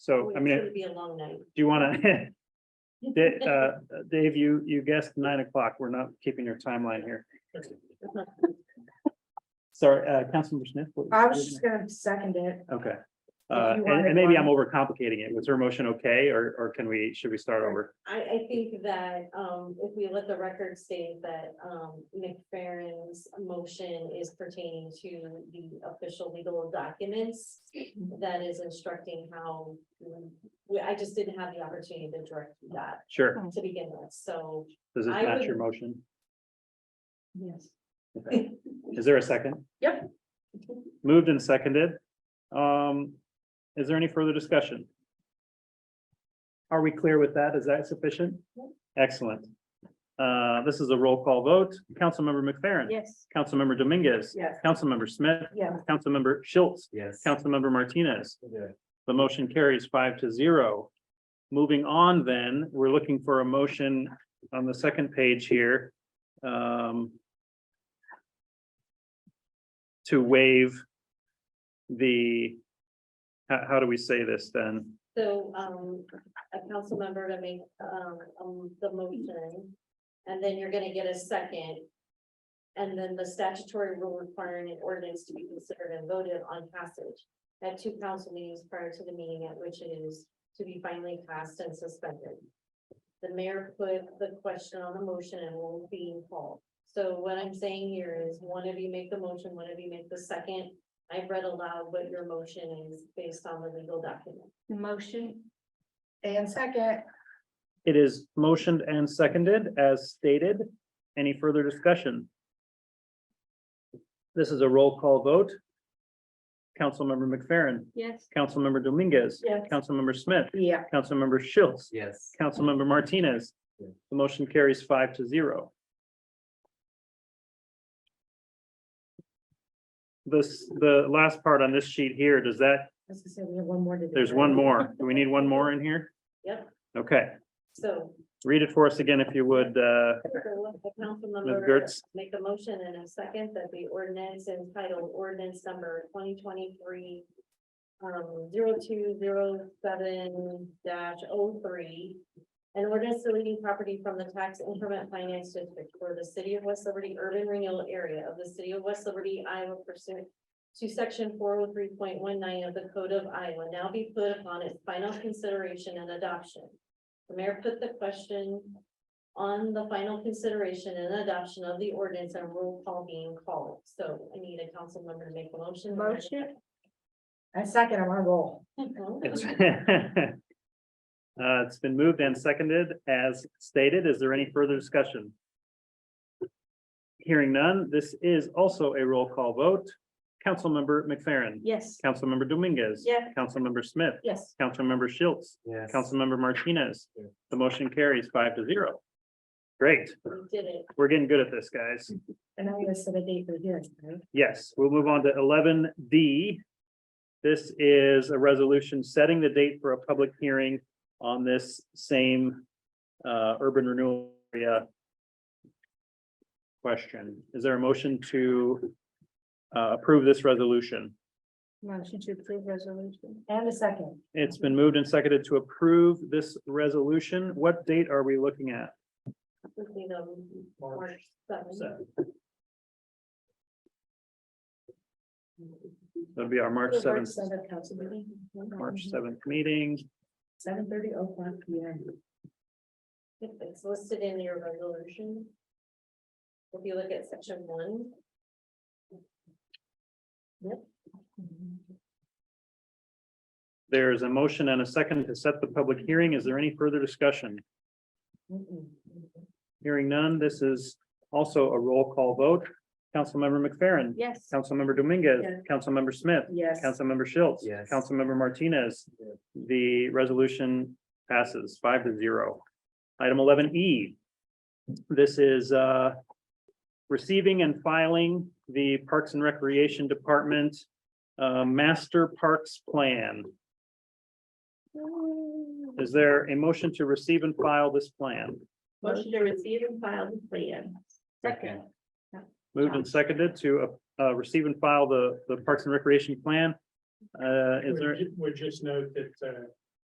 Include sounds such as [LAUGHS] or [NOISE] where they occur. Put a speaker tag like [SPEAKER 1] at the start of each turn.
[SPEAKER 1] Oh,
[SPEAKER 2] So, I mean,
[SPEAKER 3] Oh, It's
[SPEAKER 2] do
[SPEAKER 3] gonna be a long night.
[SPEAKER 2] you want to, [LAUGHS]
[SPEAKER 3] [LAUGHS]
[SPEAKER 2] Dave, uh, Dave, you, you guessed nine o'clock. We're not keeping your timeline here. Sorry, uh, Councilmember Smith. what-
[SPEAKER 1] I was just gonna second it.
[SPEAKER 2] Okay. Uh, and,
[SPEAKER 1] you wanted
[SPEAKER 2] and maybe I'm
[SPEAKER 1] one.
[SPEAKER 2] overcomplicating it. Was her motion okay, or, or can we, should we start over?
[SPEAKER 3] I, I think that, um, if we let the record state that, um, McFerrin's motion is pertaining to the official legal documents. That is instructing how, we, I just didn't have the opportunity to direct you that
[SPEAKER 2] Sure.
[SPEAKER 3] to begin with, so.
[SPEAKER 2] Does this
[SPEAKER 3] I
[SPEAKER 2] match
[SPEAKER 3] would-
[SPEAKER 2] your motion?
[SPEAKER 1] Yes.
[SPEAKER 2] Okay. Is there a second?
[SPEAKER 1] Yep.
[SPEAKER 2] Moved and seconded. Um, is there any further discussion? Are we clear with that? Is that sufficient? Excellent. Uh, this is a roll call vote. Councilmember McFerrin.
[SPEAKER 1] Yes.
[SPEAKER 2] Councilmember Dominguez.
[SPEAKER 1] Yes.
[SPEAKER 2] Councilmember Smith.
[SPEAKER 1] Yeah.
[SPEAKER 2] Councilmember Schultz.
[SPEAKER 4] Yes.
[SPEAKER 2] Councilmember Martinez.
[SPEAKER 4] Okay.
[SPEAKER 2] The motion carries five to zero. Moving on then, we're looking for a motion on the second page here. um, To waive the, how, how do we say this then?
[SPEAKER 3] So, um, a council member to make, um, um, the motion, and then you're gonna get a second. And then the statutory rule requiring an ordinance to be considered and voted on passage at two council meetings prior to the meeting at which it is to be finally passed and suspended. The mayor put the question on the motion and will be called. So what I'm saying here is, one of you make the motion, one of you make the second. I've read aloud what your motion is based on the legal document.
[SPEAKER 1] Motion. And second.
[SPEAKER 2] It is motioned and seconded as stated. Any further discussion? This is a roll call vote. Councilmember McFerrin,
[SPEAKER 1] Yes.
[SPEAKER 2] Councilmember Dominguez,
[SPEAKER 1] Yes.
[SPEAKER 2] Councilmember Smith,
[SPEAKER 1] Yeah.
[SPEAKER 2] Councilmember Schultz,
[SPEAKER 4] Yes.
[SPEAKER 2] Councilmember Martinez.
[SPEAKER 4] Yeah.
[SPEAKER 2] The motion carries five to zero. This, the last part on this sheet here, does that,
[SPEAKER 1] As I said, we have one more to do.
[SPEAKER 2] there's one more. Do we need one more in here?
[SPEAKER 3] Yep,
[SPEAKER 2] Okay,
[SPEAKER 3] so.
[SPEAKER 2] read it for us again if you would, uh,
[SPEAKER 3] The council
[SPEAKER 2] Ms.
[SPEAKER 3] member
[SPEAKER 2] Gertz.
[SPEAKER 3] make a motion and a second that the ordinance entitled ordinance number twenty twenty-three. Um, zero two zero seven dash oh three. An ordinance deleting property from the tax increment finance district for the city of West Liberty urban renewal area of the city of West Liberty, Iowa pursuant. To section four oh three point one nine of the code of Iowa now be put upon its final consideration and adoption. The mayor put the question on the final consideration and adoption of the ordinance and roll call being called. So I need a council member to make a motion.
[SPEAKER 1] Motion. And second, I'm on a roll.
[SPEAKER 2] it's [LAUGHS] uh, it's been moved and seconded as stated. Is there any further discussion? Hearing none, this is also a roll call vote. Councilmember McFerrin,
[SPEAKER 1] Yes.
[SPEAKER 2] Councilmember Dominguez.
[SPEAKER 1] Yeah.
[SPEAKER 2] Councilmember Smith,
[SPEAKER 1] Yes.
[SPEAKER 2] Councilmember Schultz,
[SPEAKER 4] Yes.
[SPEAKER 2] Councilmember Martinez.
[SPEAKER 4] Yeah.
[SPEAKER 2] The motion carries five to zero. Great,
[SPEAKER 3] We did it.
[SPEAKER 2] we're getting good at this, guys.
[SPEAKER 1] And I'm gonna set a date for the hearing. right?
[SPEAKER 2] Yes, we'll move on to eleven D. This is a resolution setting the date for a public hearing on this same uh urban renewal area. Question, is there a motion to uh approve this resolution?
[SPEAKER 1] Motion to approve resolution. And a second.
[SPEAKER 2] It's been moved and seconded to approve this resolution. What date are we looking at?
[SPEAKER 3] We did, um, March seventh.
[SPEAKER 2] So. That'll be our March seventh,
[SPEAKER 1] Seven council meeting.
[SPEAKER 2] March seventh meeting.
[SPEAKER 1] Seven thirty oh one P M.
[SPEAKER 3] If It's listed in your resolution. If you look at section one.
[SPEAKER 2] There's a motion and a second to set the public hearing. Is there any further discussion? Hearing none, this is also a roll call vote. Councilmember McFerrin.
[SPEAKER 1] Yes.
[SPEAKER 2] Councilmember Dominguez.
[SPEAKER 1] Yes.
[SPEAKER 2] Councilmember Smith.
[SPEAKER 1] Yes.
[SPEAKER 2] Councilmember Schultz.
[SPEAKER 4] Yes.
[SPEAKER 2] Councilmember Martinez.
[SPEAKER 4] Yes.
[SPEAKER 2] The resolution passes five to zero. Item eleven E. This is uh, receiving and filing the Parks and Recreation Department uh, Master Parks Plan. Is there a motion to receive and file this plan?
[SPEAKER 1] Motion to receive and file the plan.
[SPEAKER 4] Second.
[SPEAKER 2] Moved and seconded to uh, uh, receive and file the the Parks and Recreation Plan. Uh, Is there,
[SPEAKER 5] Would ju- would just note that uh,